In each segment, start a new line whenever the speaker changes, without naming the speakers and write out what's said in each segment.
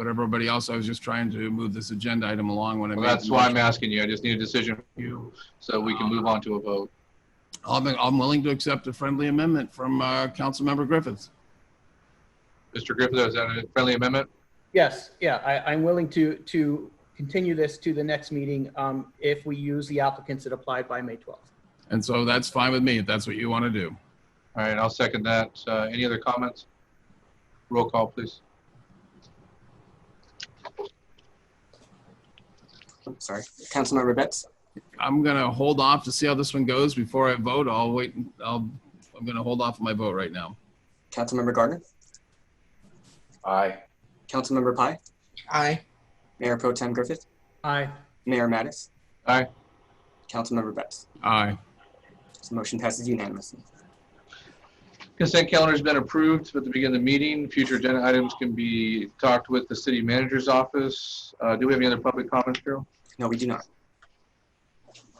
but everybody else, I was just trying to move this agenda item along when I
Well,
made.
that's
the
why I'm
motion.
asking you. I just need a decision from you so we can move on to a vote.
I'm, I'm willing to accept a friendly amendment from, uh, Councilmember Griffiths.
Mr. Griffith, is that a friendly amendment?
Yes, yeah, I, I'm willing to, to continue this to the next meeting um, if we use the applicants that applied by May 12th.
And so that's fine with me, if that's what you want to do.
All right, I'll second that. Uh, Any other comments? Roll call, please.
I'm sorry. Councilmember Betts,
I'm gonna hold off to see how this one goes before I vote. I'll wait, I'll, I'm gonna hold off my vote right now.
Councilmember Gardner,
Aye.
Councilmember Pi,
Aye.
Mayor Pro Tem Griffith,
Aye.
Mayor Mattis,
Aye.
Councilmember Betts.
Aye.
So motion passes unanimously.
Consent calendar's been approved at the beginning of the meeting. Future agenda items can be talked with the city manager's office. Uh, Do we have any other public comments, Carol?
No, we do not.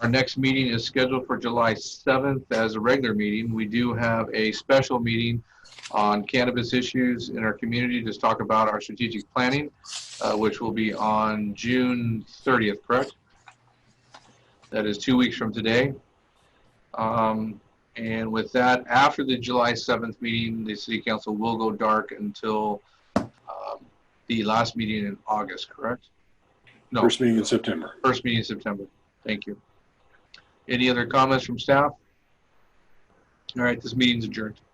Our next meeting is scheduled for July 7th as a regular meeting. We do have a special meeting on cannabis issues in our community to talk about our strategic planning, uh, which will be on June 30th, correct? That is two weeks from today. Um, And with that, after the July 7th meeting, the city council will go dark until um, the last meeting in August, correct? No.
First meeting in September.
First meeting in September. Thank you. Any other comments from staff? All right, this meeting's adjourned.